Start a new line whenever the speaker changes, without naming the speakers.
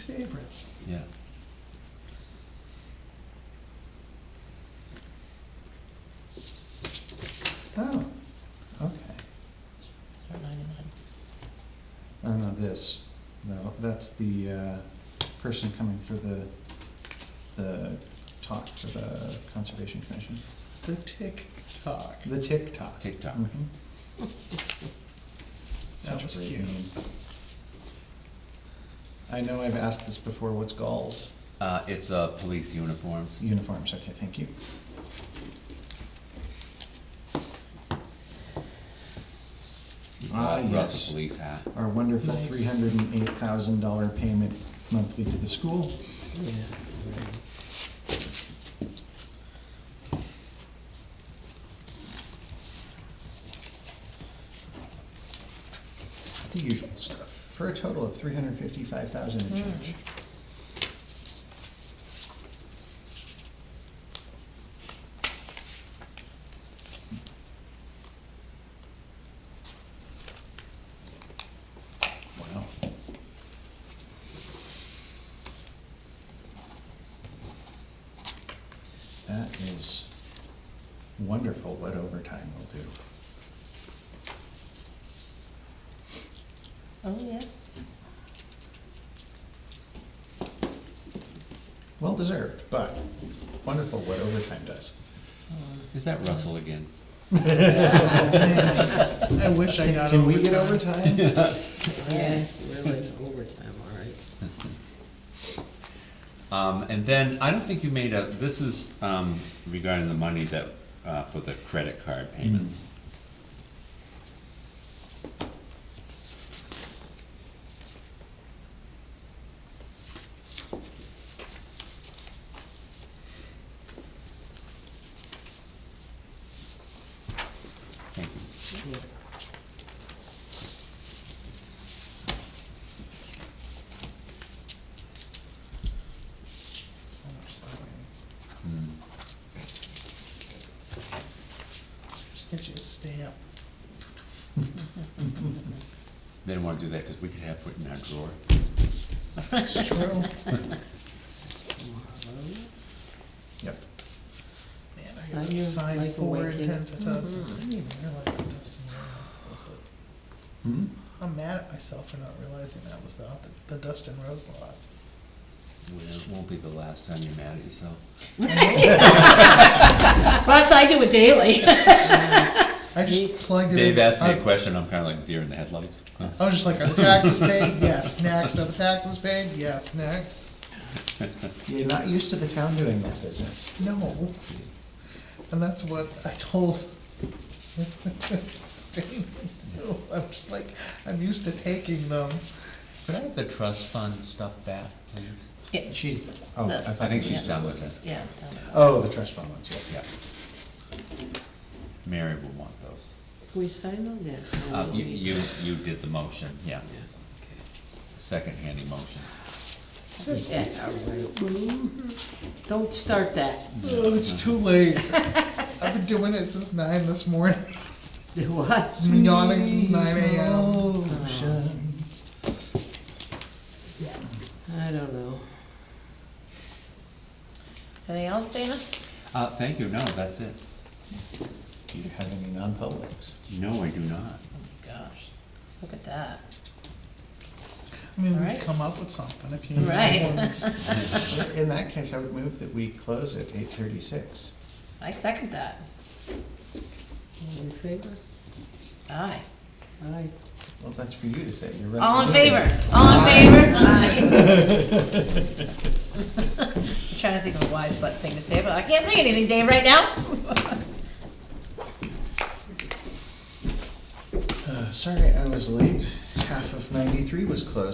Favorite.
Yeah.
Oh, okay. Oh, no, this, That'll- that's the uh, person coming for the, the talk for the Conservation Commission. The tick tock. The tick tock.
TikTok.
Mhm. Such
was
a great
cute.
name. I know I've asked this before, what's Gauls?
Uh, it's, uh, police uniforms.
Uniforms, okay, thank you. Ah,
Uh, Russell
yes.
Police hat.
Our wonderful
Nice.
three hundred and eight thousand dollar payment monthly to the school.
Yeah.
the usual stuff, for a total of three hundred fifty-five thousand and change. Wow. That is wonderful what overtime will do.
Oh, yes.
Well deserved, but wonderful what overtime does.
Is that Russell again?
I wish I
Can,
got
can we get
overtime.
overtime?
Yeah, really, overtime, all right.
Um, and then, I don't think you made a, this is, um, regarding the money that, uh, for the credit card
Mm-hmm.
payments. Thank you.
So much signing.
Mm.
Just get you a stamp.
They didn't wanna do that, cause we could have it in our drawer.
It's true.
Tomorrow.
Yep.
Man, I
Sign
gotta
your
sign
life
four
away,
and
kid.
have to toss. I
Mhm.
didn't even realize the Dustin Road was the,
Hmm?
I'm mad at myself for not realizing that was the, the Dustin Road lot.
Well, it won't be the last time you're mad at yourself.
Plus, I do it daily.
I just plugged it in.
Dave asked me a
I-
question, I'm kinda like deer in the headlights.
I was just like, are the taxes paid? Yes, next. Are the taxes paid? Yes, next.
You're not used to the town doing that business.
No. And that's what I told Damon. too. I'm just like, I'm used to taking them.
Could I have the trust fund stuff back, please?
Yeah,
She's, oh, I
This.
thought.
I think
you
she's
meant-
done with it,
Yeah, done.
Oh, the trust fund ones, yeah.
yeah. Mary will want those.
Can we sign on that? No,
Uh,
we don't
you,
need
you,
that.
you did the motion, yeah,
Yeah,
second handing motion.
okay. Yeah, all right. Don't start that.
Oh, it's too late. I've been doing it since nine this morning.
What?
Been yawning since nine AM.
Oh.
Motions.
I don't know.
Anything else, Dana?
Uh, thank you, no, that's it.
Do you have any non-publics?
No, I do not.
Oh my gosh, look at that.
I mean, we
Right.
come up with something if you. need
Right.
one.
In that case, I would move that we close at eight thirty-six.
I second that.
All in favor?
Aye.
Aye.
Well, that's for you to say, you're running.
All in favor? All in favor? Aye. I'm trying to think of a wise butt thing to say, but I can't think of anything, Dave, right now.
Uh, Sorry, I was late. Half of ninety-three was closed.